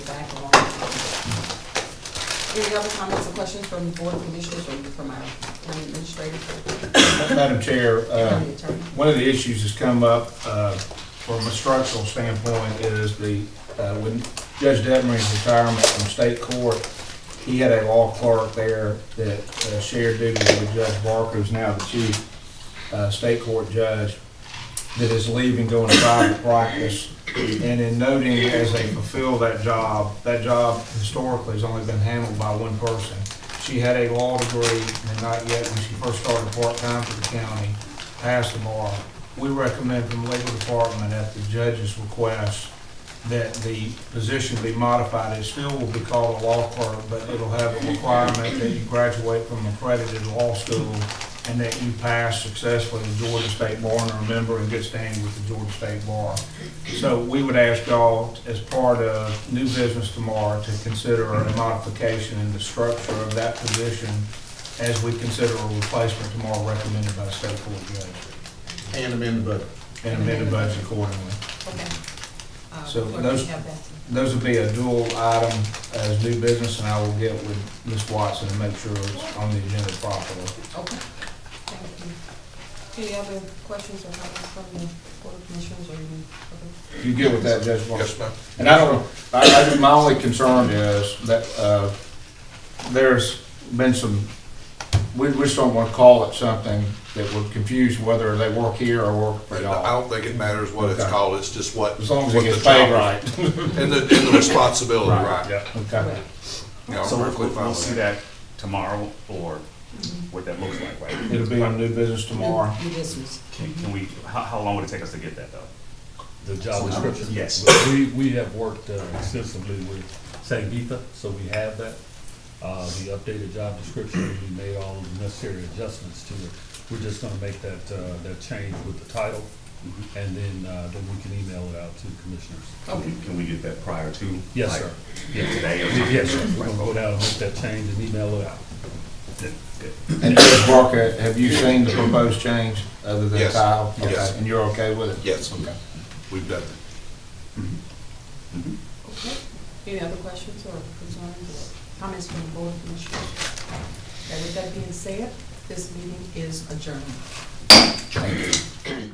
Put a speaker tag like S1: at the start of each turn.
S1: back along. Any other comments or questions from board commissioners or from our county administrator,
S2: Madam Chair, uh,
S1: county attorney?
S2: one of the issues that's come up uh, from a structural standpoint is the, uh, when Judge Demery's retirement from state court, he had a law clerk there that uh, shared duties with Judge Barker, who's now the chief uh, state court judge, that is leaving, going to private practice. And in noting as they fulfill that job, that job historically has only been handled by one person. She had a law degree, and not yet, when she first started part-time for the county, passed the bar. We recommend from the legal department at the judge's request that the position be modified. It still will be called a law clerk, but it'll have a requirement that you graduate from accredited law school and that you pass successfully the Georgia State Bar and are a member in good standing with the Georgia State Bar. So we would ask y'all, as part of new business tomorrow, to consider a modification in the structure of that position as we consider a replacement tomorrow recommended by the state court judge
S3: And amend the budget.
S2: and amend the budget accordingly.
S1: Okay. Uh,
S2: So
S1: clerk,
S2: those-
S1: you have that.
S2: Those would be a dual item as new business, and I will get with Ms. Watson and make sure it's on the agenda properly.
S1: Okay, thank you. Any other questions or comments from the board commissioners or any other?
S2: You get with that, Judge Marshall?
S3: Yes, ma'am.
S2: And I don't, I, I, just- my only concern is that, uh, there's been some, we, we just don't want to call it something that we're confused whether they work here or work for
S3: I
S2: y'all.
S3: don't think it matters what it's
S2: Okay.
S3: called, it's just what.
S2: As long as
S3: what
S2: it
S3: the
S2: gets paid
S3: job-
S2: right.
S3: And the, and the responsibility, right.
S4: Yeah,
S2: Okay.
S3: Yeah, I'm
S4: so
S3: Oh, perfectly
S4: we'll,
S3: fine
S4: we'll
S3: with
S4: see
S3: that.
S4: that tomorrow, or what that looks like, right?
S2: It'll be on new business tomorrow.
S1: New business.
S4: Can, can we, how, how long would it take us to get that, though?
S5: the job description.
S4: Yes.
S5: We, we have worked uh, extensively with Sangeetha, so we have that. Uh, the updated job description, we made all the necessary adjustments to it. We're just gonna make that, uh, that change with the title, and then, uh, then we can email it out to the commissioners.
S4: Can we- Can we get that prior to?
S5: Yes,
S4: like,
S5: sir.
S4: Today or something?
S5: Yes, sir, we're gonna go down and make that change and email it out.
S4: Good, good.
S2: And Judge Barker, have you seen the proposed change other than
S3: Yes.
S2: tile? Okay.
S3: Yes.
S2: And you're okay with it?
S3: Yes,
S2: Okay.
S3: we've done that.
S1: Okay. Any other questions or concerns or comments from the board commissioners? Okay, with that being said, this meeting is adjourned.
S2: Thank you.